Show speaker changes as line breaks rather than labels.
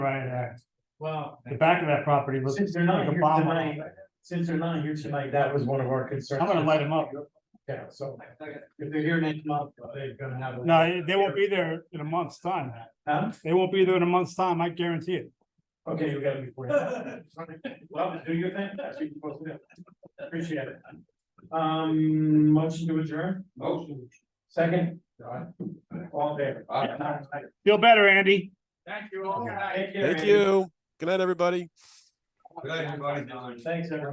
Right there,
Well,
the back of that property looks.
since they're not
like a
here
bomb.
tonight, since they're not here tonight, that was one of our concerns.
I'm gonna light them up.
Yeah, so if they're here next month, they're gonna have. a-
No, they won't be there in a month's time.
Huh?
They won't be there in a month's time, I guarantee it.
Okay, you gotta be. for it. Well, do your thing, that's what you're supposed to do. Appreciate it. Um, motion to adjourn? Motion. Second? All there.
Feel better, Andy.
Thank you all.
Thank you. Good night, everybody.
Thanks, everyone.